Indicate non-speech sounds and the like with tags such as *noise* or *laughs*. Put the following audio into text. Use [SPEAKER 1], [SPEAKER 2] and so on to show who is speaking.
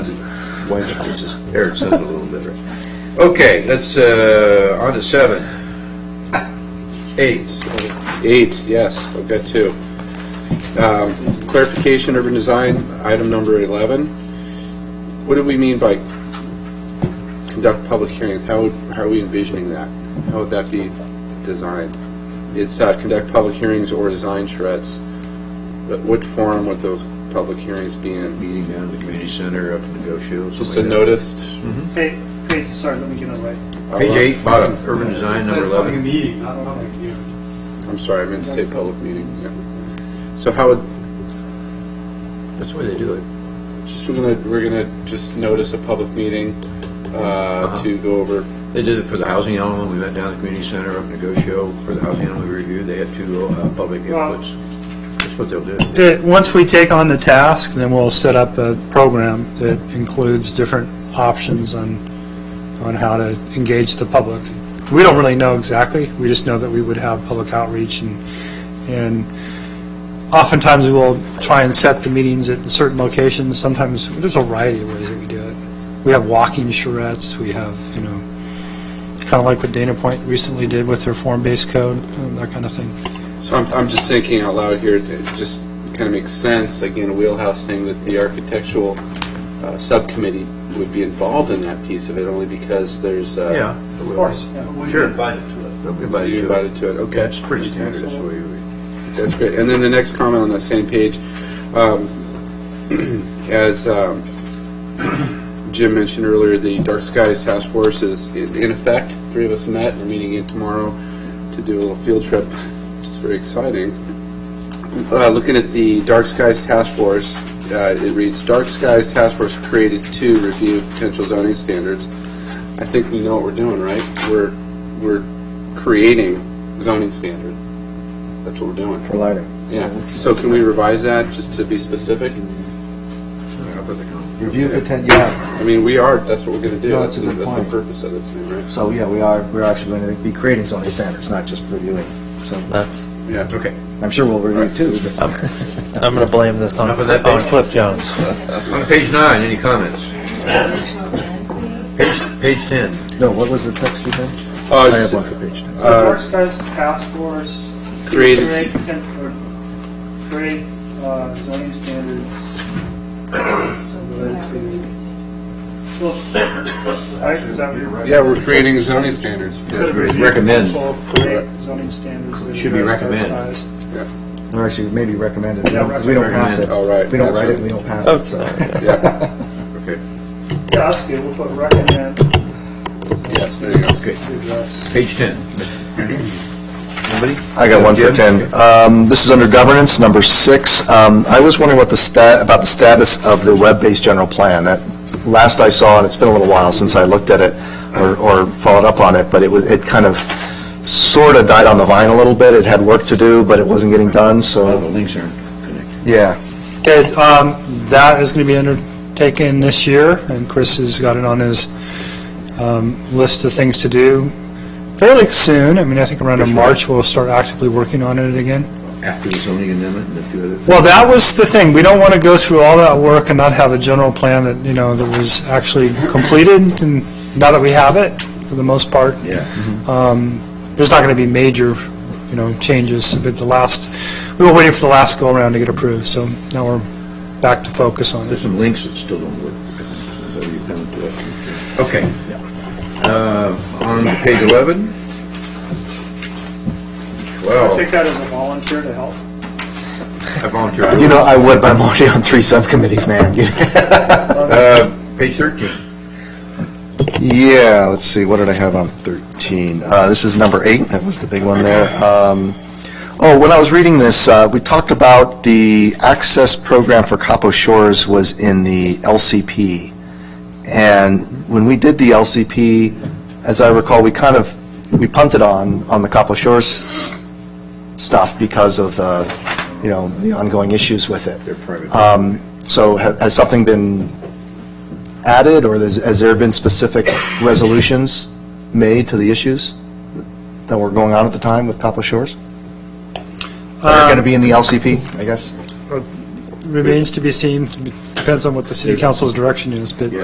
[SPEAKER 1] Why not just air it out a little bit? right?
[SPEAKER 2] Okay, let's, uh, on to seven. Eight.
[SPEAKER 3] Eight, yes, I've got two. Um, Clarification, urban design, item number 11. What do we mean by conduct public hearings? How, would- how are we envisioning that? How would that be designed? It's uh, conduct public hearings or design charrettes, but what form would those public hearings be in?
[SPEAKER 1] Meeting down at the community center up in Negotiable. something
[SPEAKER 3] Just a
[SPEAKER 1] like that.
[SPEAKER 3] noticed? uh,
[SPEAKER 4] Page, page, sorry, let me get it right.
[SPEAKER 2] Page eight, bottom, urban design, number
[SPEAKER 5] It's a public
[SPEAKER 2] 11.
[SPEAKER 5] meeting, not a public hearing.
[SPEAKER 3] I'm sorry, I meant to say public meeting. yeah. So how would,
[SPEAKER 1] That's the way they do it.
[SPEAKER 3] Just we're gonna, we're gonna just notice a public meeting,
[SPEAKER 1] Uh-huh.
[SPEAKER 3] uh, to go over,
[SPEAKER 1] They did it for the housing element. We went down to the community center up in Negotiable for the housing element review. They had two uh, public
[SPEAKER 4] Well-
[SPEAKER 1] inputs. That's what they'll do.
[SPEAKER 6] It- Once we take on the task, then we'll set up a program that includes different options on, on how to engage the public. We don't really know exactly, we just know that we would have public outreach and, and oftentimes we will try and set the meetings at certain locations, sometimes, there's a variety of ways that we do it. We have walking charrettes, we have, you know, kind of like what Dana Point recently did with their form-based code, that kind of thing.
[SPEAKER 3] so I'm, I'm just thinking out loud here, it just kind of makes sense, like in a wheelhouse thing, that the architectural, uh, subcommittee would be involved in that piece of it, only because there's, uh.
[SPEAKER 1] Yeah. Of course.
[SPEAKER 5] We're invited to it.
[SPEAKER 1] They'll be
[SPEAKER 3] You
[SPEAKER 1] invited to it.
[SPEAKER 3] invited to it, okay.
[SPEAKER 1] That's pretty standard. That's the way we.
[SPEAKER 3] That's great. And then the next comment on that same page, um, as um, *clears throat* Jim mentioned earlier, the Dark Skies Task Force is in in effect. Three of us met. We're meeting in tomorrow to do a little field trip, which is very exciting. Uh, Looking at the Dark Skies Task Force, uh, it reads, "Dark Skies Task Force created to review potential zoning standards." I think we know what we're doing, right? We're, we're creating zoning standard. That's what we're doing.
[SPEAKER 7] for lighting.
[SPEAKER 3] Yeah, so can we revise that, just to be specific?
[SPEAKER 7] Review the ten, yeah,
[SPEAKER 3] I mean, we are, that's what we're gonna do.
[SPEAKER 7] No, that's a good
[SPEAKER 3] That's the
[SPEAKER 7] point.
[SPEAKER 3] purpose of this, thing, right?
[SPEAKER 7] so yeah, we are, we're actually going to be creating zoning standards, not just reviewing. So
[SPEAKER 8] That's,
[SPEAKER 3] Yeah. Okay.
[SPEAKER 7] I'm sure we'll review too, but
[SPEAKER 8] I'm gonna blame this on,
[SPEAKER 2] Enough of that,
[SPEAKER 8] on
[SPEAKER 2] bitch.
[SPEAKER 8] Cliff Jones.
[SPEAKER 2] On page nine, any comments? Page, page 10.
[SPEAKER 7] no, what was the text you had?
[SPEAKER 3] Uh,
[SPEAKER 7] I
[SPEAKER 3] s-
[SPEAKER 7] have one for page ten.
[SPEAKER 3] Uh,
[SPEAKER 4] Dark Skies Task Force.
[SPEAKER 3] Created-
[SPEAKER 4] Create, con- or create uh, zoning standards related to. Well, Right, is that what you're right?
[SPEAKER 3] Yeah, we're creating zoning standards.
[SPEAKER 4] Instead of review,
[SPEAKER 2] Recommend.
[SPEAKER 4] control, Create zoning standards. that
[SPEAKER 2] Should be
[SPEAKER 4] address dark
[SPEAKER 2] recommend.
[SPEAKER 4] skies.
[SPEAKER 7] Or actually, maybe recommended, because we don't pass it.
[SPEAKER 3] Recommend, all right.
[SPEAKER 7] We don't
[SPEAKER 3] That's
[SPEAKER 7] write it,
[SPEAKER 3] right.
[SPEAKER 7] we don't pass it, *laughs* so.
[SPEAKER 3] Yeah,
[SPEAKER 4] Yeah, that's good, we'll put recommend
[SPEAKER 3] yes, there you go.
[SPEAKER 2] Okay,
[SPEAKER 4] to address.
[SPEAKER 2] page 10. Anybody?
[SPEAKER 9] I got one for
[SPEAKER 2] Jim?
[SPEAKER 9] 10. Um, This is under governance, number six. Um, I was wondering what the stat, about the status of the web-based general plan. That, last I saw, and it's been a little while since I looked at it or- or followed up on it, but it was, it kind of sort of died on the vine a little bit. It had work to do, but it wasn't getting done,
[SPEAKER 1] A lot of
[SPEAKER 9] so,
[SPEAKER 3] Oh,
[SPEAKER 1] the links aren't connected.
[SPEAKER 9] yeah.
[SPEAKER 6] Okay, um, that is going to be undertaken this year, and Chris has got it on his um, list of things to do fairly soon. I mean, I think around in March, we'll start actively working on it again.
[SPEAKER 1] After the zoning amendment and a few other.
[SPEAKER 6] Well, that was the thing. We don't want to go through all that work and not have a general plan that, you know, that was actually completed, and now that we have it, for the most part,
[SPEAKER 1] Yeah.
[SPEAKER 6] there's not going to be major, you know, changes, but the last, we were waiting for the last go-around to get approved, so now we're back to focus on it.
[SPEAKER 1] There's some links that still don't work. So you come to it.
[SPEAKER 2] Okay. Uh, On page 11?
[SPEAKER 4] I
[SPEAKER 2] 12,
[SPEAKER 4] take that as a volunteer to help.
[SPEAKER 2] I volunteer.
[SPEAKER 9] You know, I would, but I'm already on three subcommittees, man.
[SPEAKER 2] Uh, Page 13.
[SPEAKER 9] Yeah, let's see, what did I have on 13? Uh, This is number eight, that was the big one there. Um, Oh, when I was reading this, uh, we talked about the access program for Capo Shores was in the LCP. And when we did the LCP, as I recall, we kind of, we punted on, on the Capo Shores stuff because of the, you know, the ongoing issues with it.
[SPEAKER 1] They're private.
[SPEAKER 9] Um, So ha- has something been added, or there's- has there been specific resolutions made to the issues that were going on at the time with Capo Shores? That Are going to be in the LCP, I guess?
[SPEAKER 6] remains to be seen, depends on what the city council's direction is, but
[SPEAKER 2] Yeah.